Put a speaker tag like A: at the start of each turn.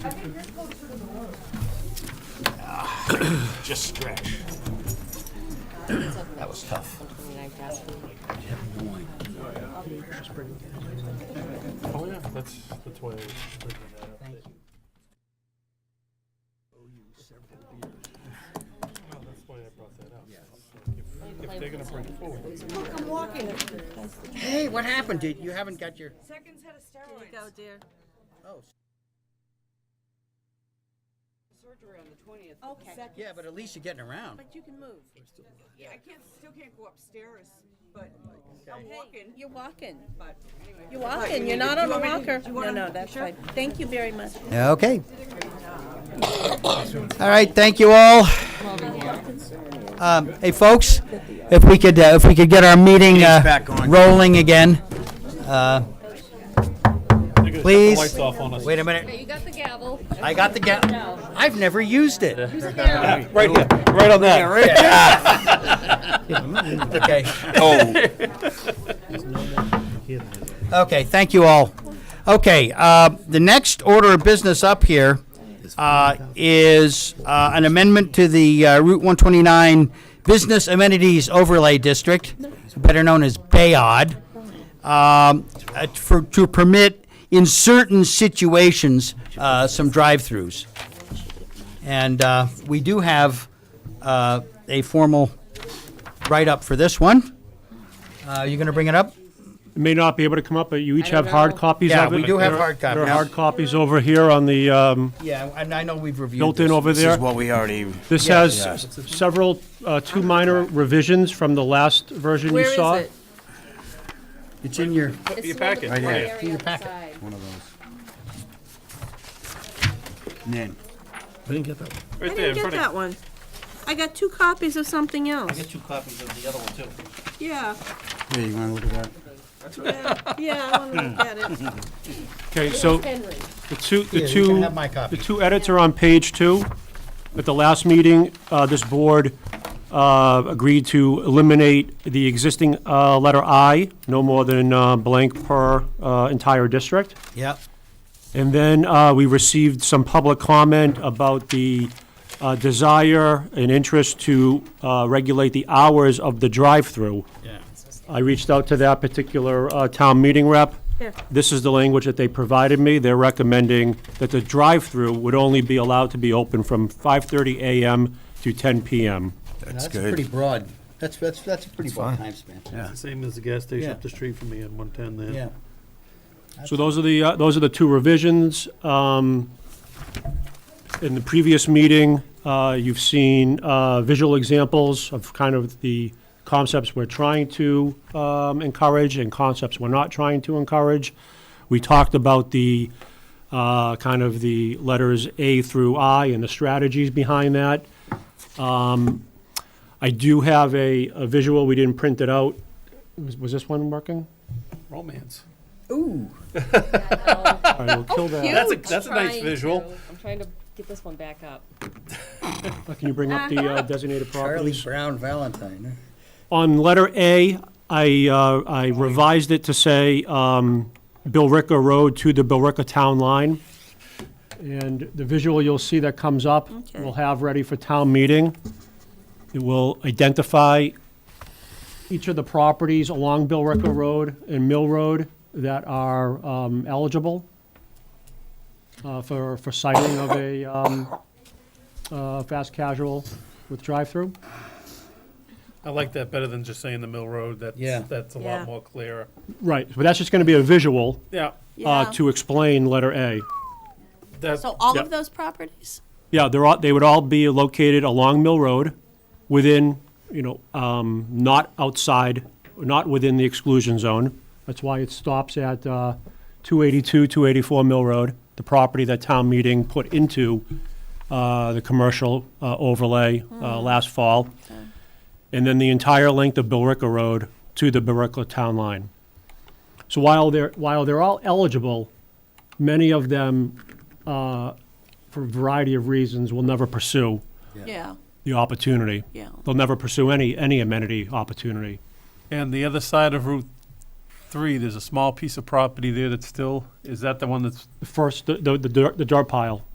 A: Just stretch. That was tough.
B: Oh, yeah, that's, that's why I was bringing that up. Thank you. Well, that's why I brought that up. If- If they're gonna bring it forward.
A: Hey, what happened? Did you haven't got your?
C: Seconds had a steroid
D: Go, dear.
A: Oh,
C: surgery on the twentieth.
D: Okay.
A: yeah, but at least you're getting around.
D: But you can move.
C: Yeah, I can't, still can't go upstairs, but I'm walking,
D: You're walking.
C: but anyway.
D: You're walking. You're not on a walker. No, no, that's fine. Thank you very much.
A: Okay. All right, thank you all. Um, Hey, folks, if we could, uh, if we could get our meeting uh, rolling again. Uh, Please.
B: Lights off on us.
A: Wait a minute,
E: You got the gavel.
A: I got the ga, I've never used it.
B: Right here, right on that.
A: Okay.
B: Oh.
A: Okay, thank you all. Okay, uh, the next order of business up here uh, is uh, an amendment to the uh, Route 129 Business Amenities Overlay District, better known as Bayod, um, uh, for- to permit in certain situations uh, some drive-throughs. And uh, we do have uh, a formal write-up for this one. Uh, You going to bring it up?
B: May not be able to come up, but you each have hard copies
A: Yeah,
B: of it.
A: we do have
B: There-
A: hard
B: There are
A: copies.
B: hard copies over here on the, um,
A: Yeah, and I know we've reviewed
B: built-in over
F: This
B: there.
F: is what we already,
B: This
A: Yeah.
B: has s- several, uh, two minor revisions from the last version you
D: Where is
B: saw.
D: it?
A: It's in your,
E: It's your packet.
F: Right here.
A: In your packet.
F: one of those. Nan,
D: I didn't get that one. I got two copies of something else. I got two copies of the other one,
F: here, you wanna look at that?
D: too. Yeah, yeah, I want to look at it.
B: Uh, Okay, so
E: Henry.
B: the two, the
A: Here, you can
B: two,
A: have my copy.
B: the two edits are on page two. At the last meeting, uh, this board, uh, agreed to eliminate the existing, uh, letter I, no more than, uh, blank per, uh, entire district.
A: Yep.
B: And then uh, we received some public comment about the uh, desire and interest to uh, regulate the hours of the drive-through. I reached out to that particular uh, town meeting rep.
D: Yeah.
B: This is the language that they provided me. They're recommending that the drive-through would only be allowed to be open from 5:30 a.m. to 10 p.m.
F: That's
A: That's pretty
F: good.
A: broad. That's, that's, that's a pretty broad
F: fine.
A: time span.
F: Yeah.
B: Same as the gas station
A: up the
B: street from me on 110 there.
A: Yeah.
B: So those are the, uh, those are the two revisions. Um, In the previous meeting, uh, you've seen uh, visual examples of kind of the concepts we're trying to um, encourage and concepts we're not trying to encourage. We talked about the, uh, kind of the letters A through I and the strategies behind that. Um, I do have a a visual, we didn't print it out. Was was this one working?
G: Romance.
B: All right, we'll kill that.
G: That's a- that's a nice visual.
E: I'm trying to get this one back up.
B: Can you bring up the uh, designated
A: Charlie
B: properties?
A: Brown Valentine.
B: On letter A, I, uh, I revised it to say, um, Billrica Road to the Billrica Town Line. And the visual you'll see that comes up, we'll have ready for town meeting. It will identify each of the properties along Billrica Road and Mill Road that are, um, eligible uh, for, for siting of a, um, uh, fast casual with drive-through.
G: I like that better than just saying the Mill Road. That's,
A: Yeah.
G: that's a
D: Yeah.
G: lot more clear.
B: Right, but that's just going to be a visual
G: Yeah.
B: uh,
D: Yeah.
B: to explain letter A.
G: That,
D: So all
B: Yeah.
D: of those properties?
B: Yeah, they're all, they would all be located along Mill Road, within, you know, um, not outside, not within the exclusion zone. That's why it stops at uh, 282, 284 Mill Road, the property that town meeting put into uh, the commercial uh, overlay uh, last fall. And then the entire length of Billrica Road to the Billrica Town Line. So while they're, while they're all eligible, many of them uh, for a variety of reasons, will never pursue
D: Yeah,
B: the opportunity.
D: yeah.
B: They'll never pursue any, any amenity opportunity.
G: and the other side of Route 3, there's a small piece of property there that's still, is that the one that's
B: The first, the, the, the dirt- the dirt pile,